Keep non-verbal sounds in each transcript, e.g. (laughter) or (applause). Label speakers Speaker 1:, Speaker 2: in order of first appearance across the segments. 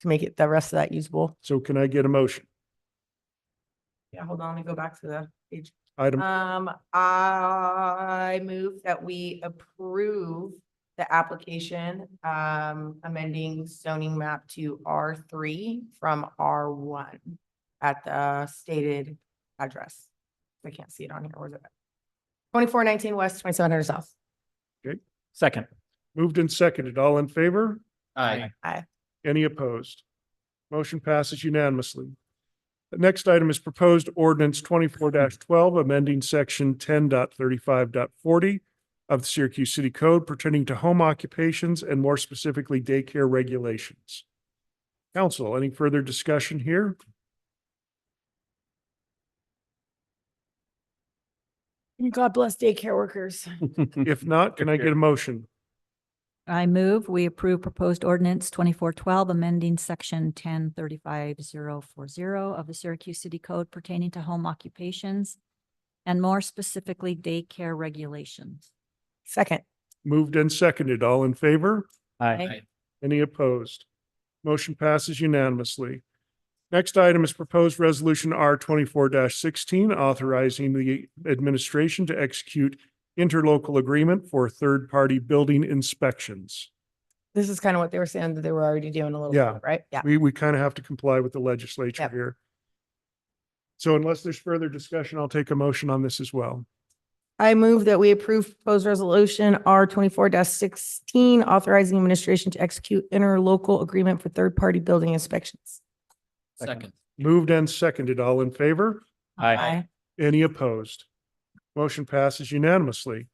Speaker 1: to make it, the rest of that usable.
Speaker 2: So can I get a motion?
Speaker 1: Yeah, hold on, let me go back to the page.
Speaker 2: Item,
Speaker 1: Um, I move that we approve the application, um, amending zoning map to R three from R one at the stated address. I can't see it on here. Where is it? Twenty-four nineteen West, twenty-seven hundred South.
Speaker 3: Second.
Speaker 2: moved and seconded. All in favor?
Speaker 3: Aye.
Speaker 2: Any opposed? Motion passes unanimously. The next item is proposed ordinance twenty-four twelve, amending section 10.35.40 of the Syracuse City Code pertaining to home occupations and more specifically daycare regulations. Council, any further discussion here?
Speaker 1: God bless daycare workers.
Speaker 2: If not, can I get a motion?
Speaker 4: I move, we approve proposed ordinance twenty-four twelve, amending section ten thirty-five zero four zero of the Syracuse City Code pertaining to home occupations and more specifically daycare regulations.
Speaker 1: Second,
Speaker 2: Moved and seconded. All in favor?
Speaker 3: Aye.
Speaker 2: Any opposed? Motion passes unanimously. Next item is proposed resolution R twenty-four sixteen, authorizing the administration to execute interlocal agreement for third-party building inspections.
Speaker 1: this is kind of what they were saying that they were already doing a little
Speaker 2: Yeah.
Speaker 1: bit, right? Yeah.
Speaker 2: We, we kind of have to comply with the legislature
Speaker 1: Yep.
Speaker 2: here. So unless there's further discussion, I'll take a motion on this as well.
Speaker 1: I move that we approve proposed resolution R twenty-four sixteen, authorizing administration to execute interlocal agreement for third-party building inspections.
Speaker 3: Second.
Speaker 2: Moved and seconded. All in favor? Any opposed? Motion passes unanimously.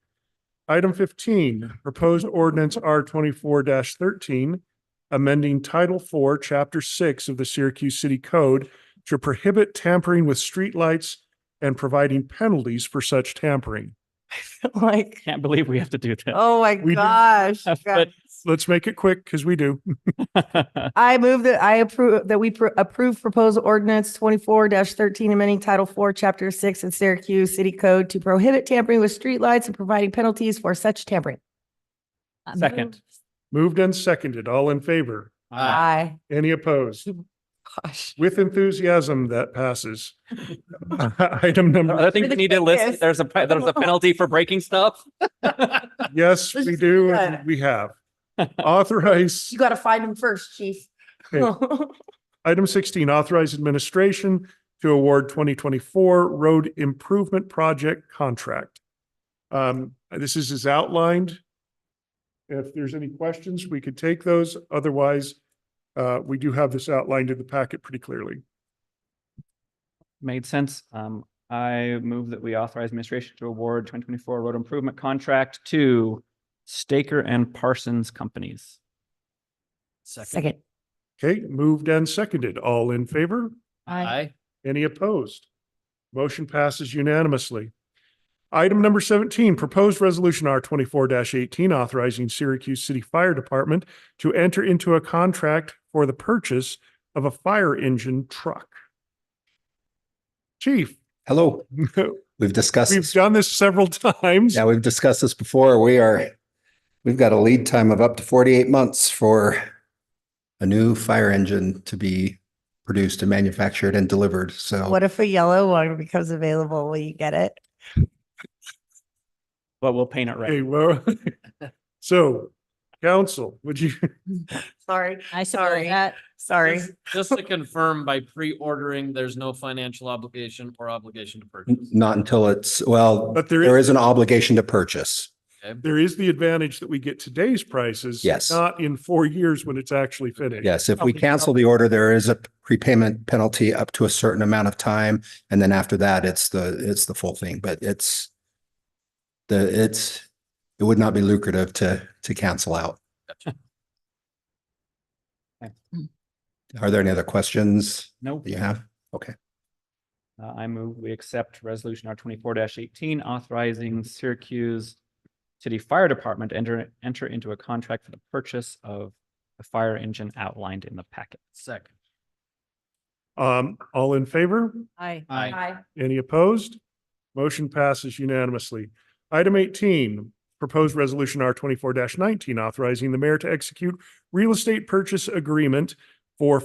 Speaker 2: Item fifteen, proposed ordinance R twenty-four thirteen, amending Title Four, Chapter Six of the Syracuse City Code to prohibit tampering with streetlights and providing penalties for such tampering.
Speaker 1: Like,
Speaker 3: Can't believe we have to do (laughs) this.
Speaker 1: oh my
Speaker 2: We do-
Speaker 1: gosh.
Speaker 3: But-
Speaker 1: guys.
Speaker 2: Let's make it quick because we do.
Speaker 1: I move that I approve, that we pro- approve proposed ordinance twenty-four thirteen, amending Title Four, Chapter Six of Syracuse City Code to prohibit tampering with streetlights and providing penalties for such tampering.
Speaker 4: I move-
Speaker 3: Second.
Speaker 2: Moved and seconded. All in favor?
Speaker 1: Aye.
Speaker 2: Any opposed?
Speaker 1: Gosh.
Speaker 2: With enthusiasm, that passes. Item number,
Speaker 3: I think we need to list, there's a, pe- there's a penalty for breaking stuff.
Speaker 2: yes, we do, and we have. Authorize.
Speaker 1: You gotta find him first, chief.
Speaker 2: Okay. Item sixteen, authorize administration to award twenty twenty-four road improvement project contract. Um, this is as outlined. If there's any questions, we could take those. Otherwise, uh, we do have this outlined in the packet pretty clearly.
Speaker 3: Made sense. Um, I move that we authorize administration to award twenty twenty-four road improvement contract to Staker and Parsons Companies.
Speaker 1: Second.
Speaker 2: Okay, moved and seconded. All in favor?
Speaker 3: Aye.
Speaker 2: Any opposed? Motion passes unanimously. Item number seventeen, proposed resolution R twenty-four eighteen authorizing Syracuse City Fire Department to enter into a contract for the purchase of a fire engine truck. Chief, (laughs)
Speaker 5: Hello, we've discussed,
Speaker 2: we've
Speaker 5: this.
Speaker 2: done this several times.
Speaker 5: yeah, we've discussed this before. We are, we've got a lead time of up to forty-eight months for a new fire engine to be produced and manufactured and delivered.
Speaker 1: (laughs)
Speaker 5: So
Speaker 1: What if a yellow one becomes available? Will you get it?
Speaker 3: But we'll paint it
Speaker 2: Okay,
Speaker 3: right.
Speaker 2: well, (laughs) so council, would you, (laughs)
Speaker 1: Sorry,
Speaker 4: I
Speaker 1: Sorry.
Speaker 4: support that.
Speaker 1: sorry.
Speaker 6: Just- Just to confirm, by pre-ordering, there's no financial obligation or obligation to purchase.
Speaker 5: not until it's, well,
Speaker 2: but
Speaker 5: there
Speaker 2: there is,
Speaker 5: is an obligation to purchase.
Speaker 2: there is the advantage that we get today's prices.
Speaker 5: Yes.
Speaker 2: Not in four years when it's actually finished.
Speaker 5: Yes, if we cancel the order, there is a prepayment penalty up to a certain amount of time. And then after that, it's the, it's the full thing, but it's the, it's, it would not be lucrative to, to cancel out. Are there any other questions
Speaker 3: Nope.
Speaker 5: that you have?
Speaker 3: Uh, I move we accept resolution R twenty-four eighteen authorizing Syracuse City Fire Department to enter, enter into a contract for the purchase of the fire engine outlined in the packet.
Speaker 6: Second.
Speaker 2: Um, all in favor?
Speaker 4: Aye.
Speaker 2: Any opposed? Motion passes unanimously. Item eighteen, proposed resolution R twenty-four nineteen authorizing the mayor to execute real estate purchase agreement for